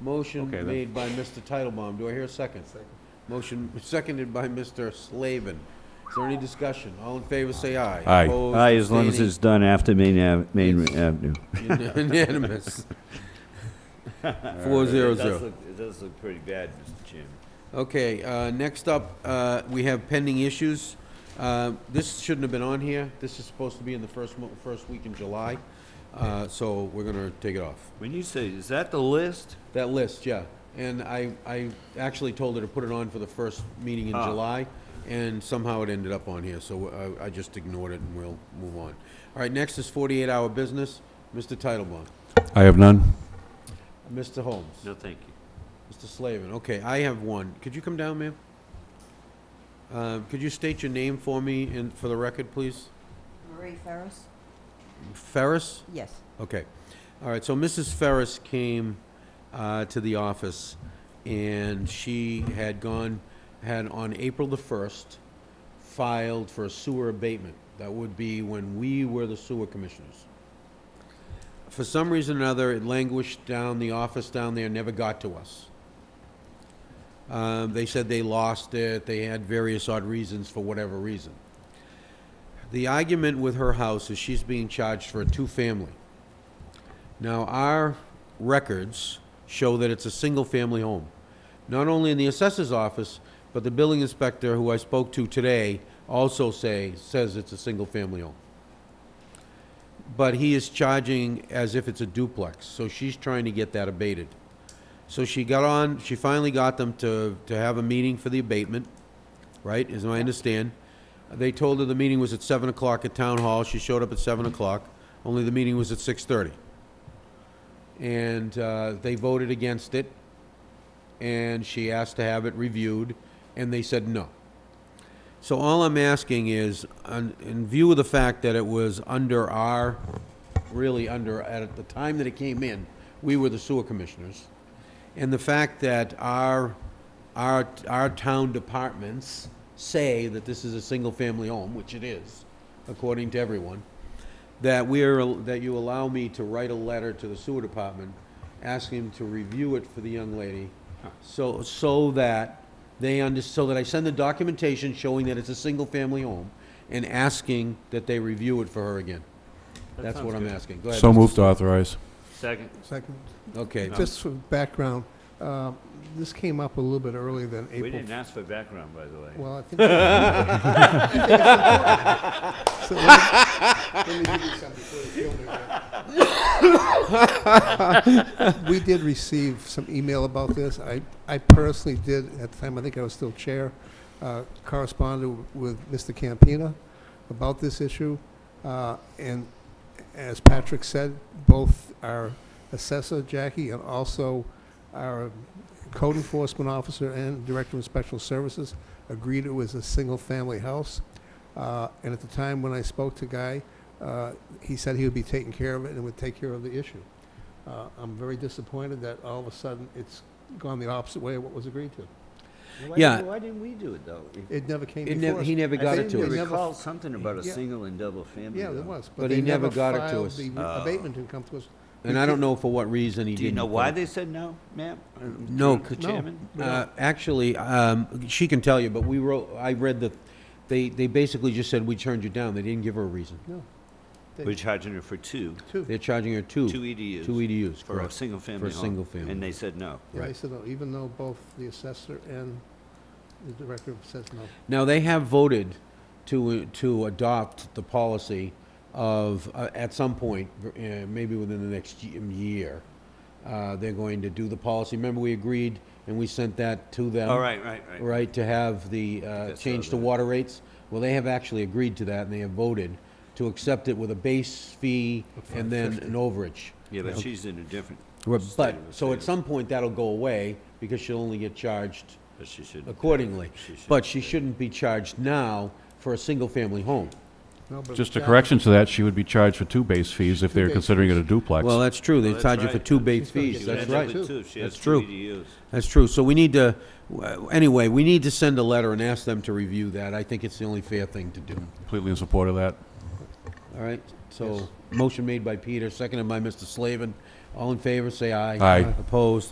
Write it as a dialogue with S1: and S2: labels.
S1: Motion
S2: Okay, then.
S1: made by Mr. Titlebaum. Do I hear a second?
S3: Second.
S1: Motion seconded by Mr. Slavin. Is there any discussion? All in favor, say aye.
S2: Aye.
S1: Opposed,
S4: Aye, as long as
S1: abstaining,
S4: it's done after Main Ave, Main Avenue.
S1: Unanimous. Four zero
S5: It does
S1: zero.
S5: look, it does look pretty bad, Mr. Chairman.
S1: Okay, uh, next up, uh, we have pending issues. Uh, This shouldn't have been on here. This is supposed to be in the first mo, first week in July, Uh, so we're gonna take it off.
S5: When you say, is that the list?
S1: That list, yeah. And I, I actually told her to put it on for the first meeting in July, and somehow it ended up on here, so uh, I, I just ignored it and we'll move on. All right, next is forty-eight hour business, Mr. Titlebaum,
S2: I have none.
S1: Mr. Holmes,
S5: No, thank you.
S1: Mr. Slavin. Okay, I have one. Could you come down, ma'am? Uh, could you state your name for me and for the record, please?
S6: Marie Ferris?
S1: Ferris?
S6: Yes.
S1: Okay. All right, so Mrs. Ferris came uh, to the office, and she had gone, had on April the 1st, filed for a sewer abatement. That would be when we were the sewer commissioners. For some reason or another, it languished down, the office down there never got to us. Um, They said they lost it, they had various odd reasons for whatever reason. The argument with her house is she's being charged for a two-family. Now, our records show that it's a single-family home. Not only in the assessor's office, but the building inspector, who I spoke to today, also say, says it's a single-family home. But he is charging as if it's a duplex, so she's trying to get that abated. So she got on, she finally got them to, to have a meeting for the abatement, right, as I understand. They told her the meeting was at seven o'clock at town hall, she showed up at seven o'clock, only the meeting was at six-thirty and uh, they voted against it. And she asked to have it reviewed, and they said no. So all I'm asking is, on- in view of the fact that it was under our, really under, at the time that it came in, we were the sewer commissioners, and the fact that our, our, our town departments say that this is a single-family home, which it is, according to everyone, that we're, that you allow me to write a letter to the sewer department, asking them to review it for the young lady, so, so that they under, so that I send the documentation showing that it's a single-family home, and asking that they review it for her again. That's what I'm asking. Go ahead.
S2: So
S1: Mr.
S2: moved to authorize.
S5: Second.
S3: Second.
S1: Okay,
S3: Just for background, uh, this came up a little bit earlier than April.
S5: We didn't ask for background, by the way.
S3: Well, I think. I think it's important. So let me- let me give you some before you kill me, Rick. We did receive some email about this. I, I personally did, at the time, I think I was still chair, uh, corresponded with Mr. Campina about this issue. Uh, And as Patrick said, both our assessor, Jackie, and also our code enforcement officer and director of special services agreed it was a single-family house. Uh, And at the time when I spoke to Guy, uh, he said he would be taking care of it and would take care of the issue. Uh, I'm very disappointed that all of a sudden it's gone the opposite way of what was agreed to.
S5: Why
S1: Yeah.
S5: didn't- Why didn't we do it, though? If-
S3: It never came
S1: It
S3: before
S1: never-
S3: us.
S1: he never
S5: I
S1: got it
S5: think
S1: to
S5: we
S3: us.
S5: recall something about a
S3: Yeah.
S5: single and double family.
S3: Yeah, there
S5: though.
S3: was.
S1: But
S3: they
S1: he never got it to
S3: filed
S1: us.
S3: The abatement didn't come to us.
S1: and I don't know for what reason he didn't.
S5: Do you know
S1: put
S5: why
S1: it.
S5: they said no, ma'am? Uh,
S1: No,
S5: Mr.
S1: c-
S3: no.
S5: Chairman?
S1: Uh, Actually, um, she can tell you, but we wrote, I read the, they, they basically just said, "We turned you down." They didn't give her a reason.
S3: No. They-
S5: We're charging her for two,
S3: Two.
S1: They're charging her two.
S5: two EDUs.
S1: Two E EDUs,
S5: For a
S1: correct.
S5: single family home.
S1: single family.
S5: And they said no.
S3: Yeah, they
S1: Right.
S3: said no, even though both the assessor and the director says no.
S1: Now, they have voted to, to adopt the policy of, uh, at some point, uh, maybe within the next ye- year, uh, they're going to do the policy. Remember, we agreed, and we sent that to them.
S5: All right, right, right.
S1: Right, to have the, uh,
S5: saw
S1: change to
S5: that.
S1: water rates. Well, they have actually agreed to that, and they have voted to accept it with a base fee and then an overage.
S5: Yeah, but she's in a different,
S1: But,
S5: State of the
S1: so at
S5: state.
S1: some point, that'll go away, because she'll only get charged
S5: but she shouldn't.
S1: accordingly.
S5: She should-
S1: But she shouldn't be charged now for a single-family home.
S3: No, but
S2: Just a
S3: Jack-
S2: correction to that, she would be charged for two base fees if they're
S3: base
S2: considering it a duplex.
S1: Well, that's true, they
S5: Well, that's
S1: charge you for
S5: right.
S1: two base
S3: She's gonna
S1: fees,
S3: get
S1: that's
S3: charged
S1: right,
S3: too.
S5: Two, if she
S1: That's
S5: has two E
S1: true.
S5: EDUs.
S1: that's true. So we need to, w- anyway, we need to send a letter and ask them to review that, I think it's the only fair thing to do,
S2: Completely in support of that.
S1: all right? So, motion made by Peter, seconded by Mr. Slavin, All in favor, say aye.
S2: Aye.
S1: Opposed,